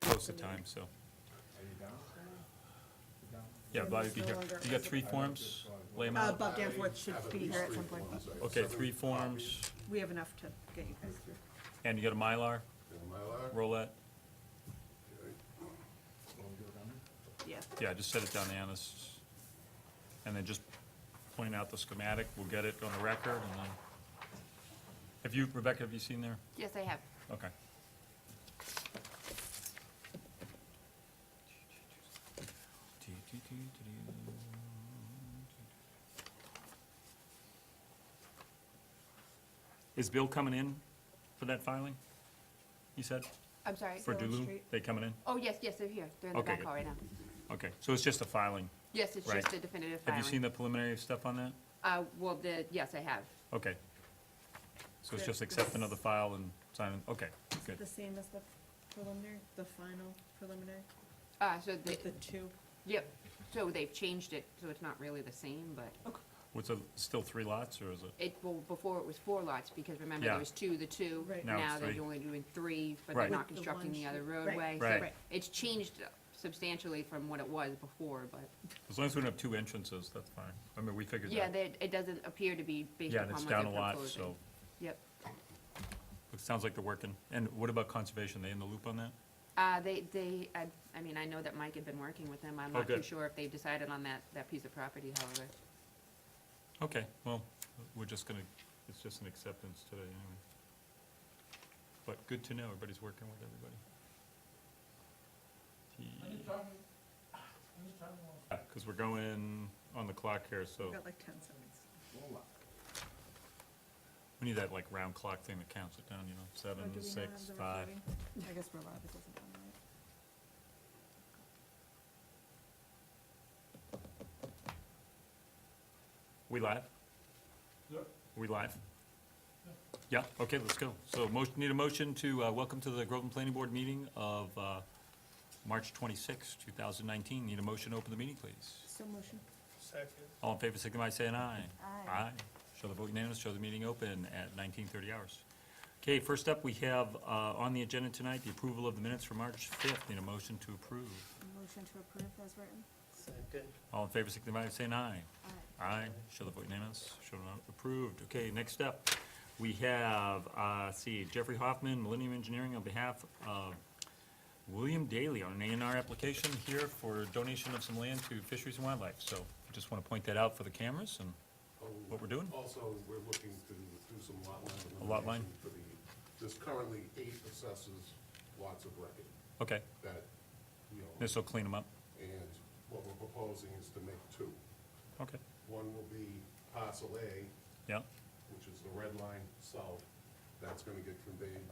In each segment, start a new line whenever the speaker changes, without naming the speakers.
close to time, so. Yeah, Bob, you can hear. You got three forms? Lay 'em
Uh,
out.
Bob Danforth should be here at some point.
Okay, three forms,
We have enough to get you guys.
and you got a Mylar,
Mylar?
roulette?
Yeah.
Yeah, just set it down, Anna, s- and then just point out the schematic, we'll get it on the record, and then, have you, Rebecca, have you seen there?
Yes, I have.
Okay. Is Bill coming in for that filing? You said,
I'm sorry.
for
Bill
Dulu?
Street.
They coming in?
Oh, yes, yes, they're here. They're in the
Okay,
back
good.
hall right now.
Okay, so it's just a filing.
Yes, it's
Right.
just a definitive
Have
filing.
you seen the preliminary stuff on that?
Uh, well, the, yes, I have.
Okay. So it's
The-
just accept another file and sign, it. okay, good.
The same as the preliminary, the final preliminary,
Uh, so the,
with the two.
yep, so they've changed it, so it's not really the same, but
What's, a- still three lots, or is it?
it, well, before it was four lots, because remember
Yeah.
there was two, the two.
Right.
Now
Now
it's
they're
three.
only doing three, but
Right.
they're
With
not
the
constructing
one
the other
sheet.
roadway.
Right,
so
Right.
It's changed substantially from what it was before, but,
As long as we don't have two entrances, that's fine. I mean, we figured that.
yeah, they, it doesn't appear to be based
Yeah,
upon
and
what
it's
they're
down a
proposing.
lot, so
Yep.
it sounds like they're working. And what about conservation? They in the loop on that?
Uh, they, they, I, I mean, I know that Mike had been working with them, I'm
Oh,
not too
good.
sure if they decided on that, that piece of property, however.
Okay, well, we're just gonna, it's just an acceptance today anyway. But good to know, everybody's working with everybody. Because we're going on the clock here, so
We've got like ten seconds.
we need that like round clock thing that counts it down, you know,
Oh, do
seven,
we not have
six,
the
five.
recording? I guess we're allowed, it doesn't matter, right?
We live? We live? Yeah, okay, let's go. So motion, need a motion to, uh, welcome to the Groveland Planning Board meeting of, uh, March twenty-sixth, two thousand nineteen. Need a motion to open the meeting, please.
So motion.
Second.
All in favor, signify by saying aye.
Aye.
Show the vote unanimous, show the meeting open at nineteen thirty hours. Okay, first up, we have, uh, on the agenda tonight, the approval of the minutes for March fifth. Need a motion to approve.
Motion to approve as written.
Second.
All in favor, signify by saying aye.
Aye.
Aye, show the vote unanimous, show not approved. Okay, next up, we have, uh, let's see, Jeffrey Hoffman, Millennium Engineering, on behalf of William Daly on an A and R application here for donation of some land to Fisheries and Wildlife. So just want to point that out for the cameras and what we're doing.
Oh. Also, we're looking to do some lot line
A lot line?
elimination for the, there's currently eight assessors lots of record
Okay,
that we own.
this will clean them up.
And what we're proposing is to make two.
Okay,
One will be parcel A,
yeah,
which is the red line south, that's gonna get conveyed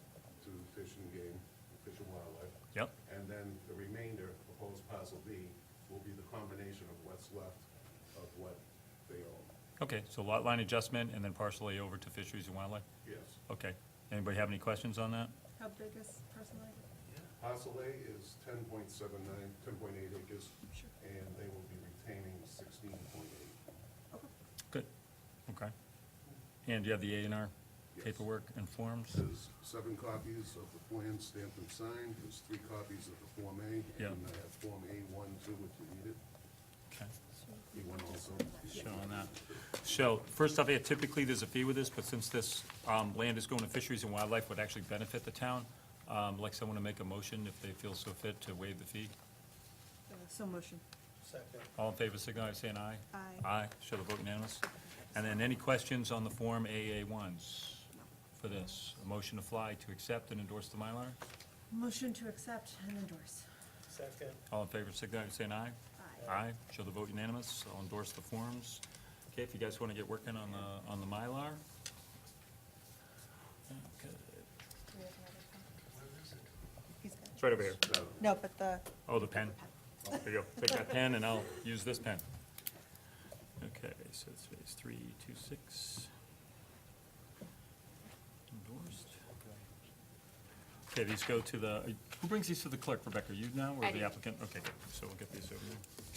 to Fish and Game, Fish and Wildlife.
Yep.
And then the remainder, proposed parcel B, will be the combination of what's left of what they own.
okay, so lot line adjustment and then partially over to Fisheries and Wildlife.
Yes.
Okay, anybody have any questions on that?
How big is personally?
Parcel A is 10.79, 10.8 acres,
Sure.
and they will be retaining sixteen point eight.
Good, okay. And do you have the A and R
Yes.
paperwork and forms?
There's seven copies of the plan stamped and signed, there's three copies of the Form A,
Yeah.
and I have Form A one, two, if you need it.
Okay.
You want also?
showing that. So, first off, yeah, typically, there's a fee with this, but since this um, land is going to fisheries and wildlife, would actually benefit the town, um, like someone to make a motion if they feel so fit to waive the fee.
Uh, So motion.
Second.
All in favor, signify by saying aye.
Aye.
Aye, show the vote unanimous. And then any questions on the Form AA1s for this? A motion to fly to accept and endorse the Mylar?
Motion to accept and endorse.
Second.
All in favor, signify by saying aye.
Aye.
Aye, show the vote unanimous, I'll endorse the forms. Okay, if you guys want to get working on the, on the Mylar. Okay.
He's got it.
It's right over here.
No, but the,
Oh, the pen. There you go. Take that pen and I'll use this pen. Okay, so it's phase three, two, six. Endorsed. Okay, these go to the, who brings these to the clerk, Rebecca? You now or
I
the
do.
applicant? Okay, good. so we'll get these over there.